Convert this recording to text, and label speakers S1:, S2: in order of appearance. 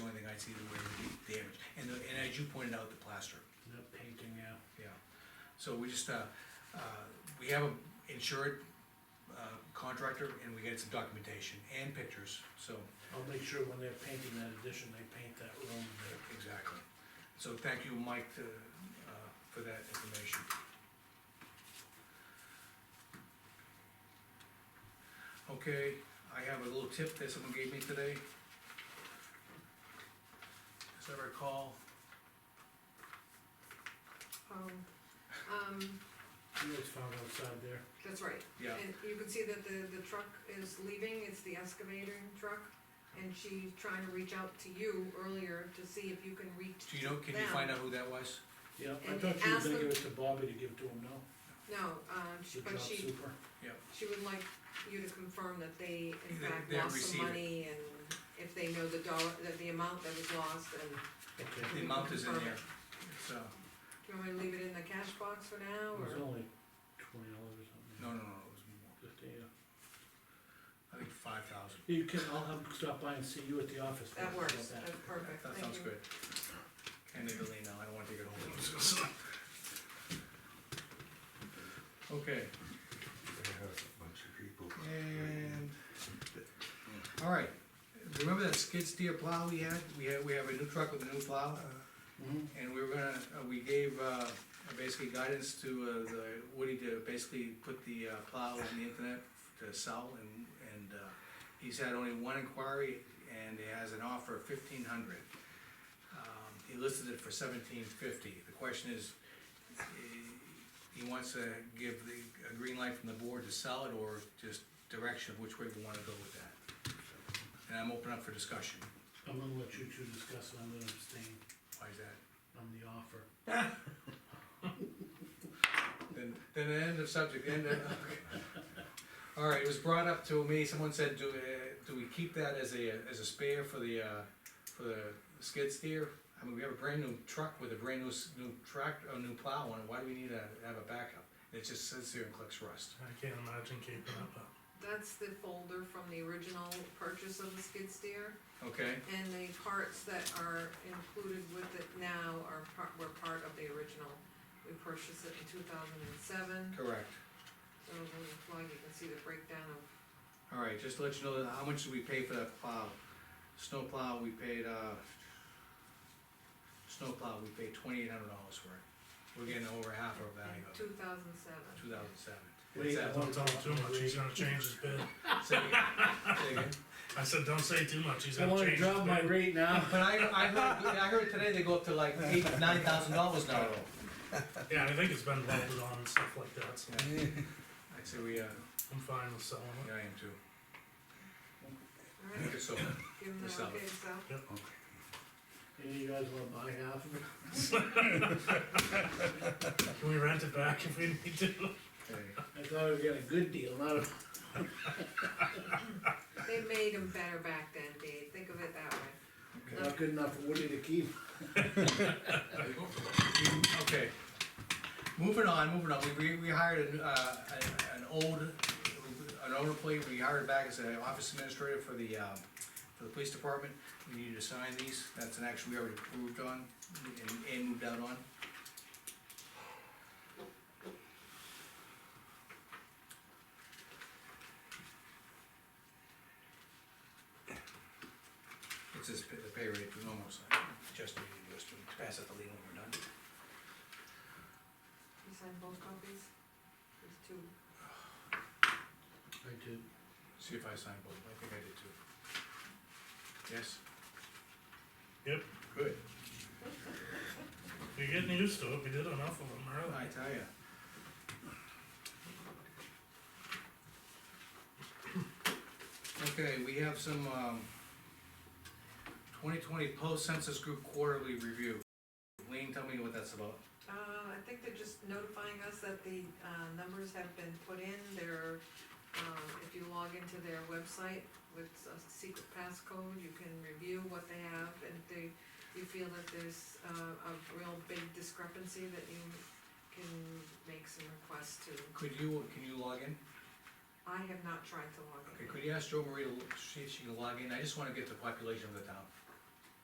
S1: as you pointed out, the plaster,
S2: the painting, yeah.
S1: yeah. So we just, uh, uh, we have an insured uh, contractor, and we get some documentation and pictures, so,
S2: I'll make sure when they're painting that addition, they paint that room there.
S1: exactly. So thank you, Mike, uh, uh, for that information. Okay, I have a little tip that someone gave me today. As I recall,
S3: Um, um,
S2: You always found outside there.
S3: that's right.
S1: yeah,
S3: And you can see that the, the truck is leaving, it's the excavator truck, and she's trying to reach out to you earlier to see if you can reach,
S1: do you know, can you find out who that was?
S2: Yeah, I
S3: And
S2: thought you were
S3: ask
S2: gonna
S3: them-
S2: give it to Bobby to give to him, no?
S3: no, um, she-
S2: The
S3: but
S2: job
S3: she,
S2: super.
S3: she would like you to confirm that they in
S1: They-
S3: fact
S1: they
S3: lost
S1: receive
S3: some
S1: it.
S3: money and if they know the dollar, that the amount that was lost and.
S2: Okay.
S1: The amount is in there, it's, uh,
S3: Do you want me to leave it in the cash box for now,
S2: It was
S3: or?
S2: only twenty dollars or something.
S1: no, no, no, it was more,
S2: Fifty, yeah.
S1: I think five thousand.
S2: You can, I'll have him stop by and see you at the office.
S3: That
S2: How
S3: works,
S2: about that?
S3: that's perfect,
S1: That
S3: thank you.
S1: sounds good. And they're delayed now, I don't wanna take it home. Okay,
S4: They have a bunch of people.
S1: and, all right, remember that skid steer plow we had? We had, we have a new truck with a new plow, uh,
S2: Mhm.
S1: and we were gonna, uh, we gave, uh, basically guidance to, uh, the Woody to basically put the uh, plow on the internet to sell, and, and, uh, he's had only one inquiry, and it has an offer of fifteen hundred. Um, He listed it for seventeen fifty, the question is, eh, he wants to give the, a green light from the board to sell it, or just direction of which way we wanna go with that. And I'm open up for discussion,
S2: I'm gonna let you two discuss, and I'm gonna abstain
S1: why is that?
S2: on the offer.
S1: Then, then the end of subject, end of, okay. All right, it was brought up to me, someone said, do, uh, do we keep that as a, as a spare for the, uh, for the skid steer? I mean, we have a brand new truck with a brand new, s- new tractor, a new plow on it, why do we need to have a backup? It just sits there and collects rust.
S5: I can't imagine keeping up that.
S3: That's the folder from the original purchase of the skid steer.
S1: Okay,
S3: And the parts that are included with it now are part, were part of the original. We purchased it in two thousand and seven,
S1: correct.
S3: so on the plug, you can see the breakdown of,
S1: All right, just to let you know, that- how much did we pay for that plow? Snow plow, we paid, uh, snow plow, we paid twenty-eight hundred dollars for it. We're getting over half our value of it,
S3: two thousand seven.
S1: two thousand seven.
S2: Wait, I
S5: Don't
S2: want-
S5: tell him too much, he's gonna change his bid. I said, don't say too much, he's
S2: I
S5: gonna
S2: wanna
S5: change his
S2: drop my
S5: bid.
S2: rate now.
S1: But I, I heard, I heard today they go up to like eight, nine thousand dollars now.
S5: Yeah, I think it's been welded on and stuff like that, so
S1: I'd say we, uh,
S5: I'm fine with selling
S1: yeah,
S5: it.
S1: I am too.
S3: Alright,
S1: So,
S3: give them the
S1: Yourself.
S3: okay, so,
S2: Any of you guys wanna buy half of it?
S5: Can we rent it back if we need to?
S1: okay.
S2: I thought we got a good deal, not a,
S3: they made them better back then, Dave, think of it that way.
S2: not good enough for Woody to keep.
S1: Okay. Moving on, moving on, we, we- we hired an, uh, an- an old, an old employee, we hired back as an office administrator for the, um, for the police department. We need you to sign these, that's an action we already approved on, and, and moved out on. It's this, pa- the pay rate, we almost, just need to do this, to pass it to Lean when we're done.
S3: You signed both copies? There's two.
S2: I did.
S1: See if I signed both, I think I did too. Yes?
S5: Yep.
S1: Good.
S5: You're getting used to it, we did enough of them earlier.
S1: I tell ya. Okay, we have some, um, twenty twenty post census group quarterly review. Lean, tell me what that's about.
S3: Uh, I think they're just notifying us that the, uh, numbers have been put in, they're, um, if you log into their website with a secret passcode, you can review what they have, and if they, you feel that there's, uh, a real big discrepancy, that you can make some requests to.
S1: Could you, can you log in?
S3: I have not tried to log
S1: Okay,
S3: in.
S1: could you ask Jo Marie to l- see if she can log in? I just wanna get the population of the town.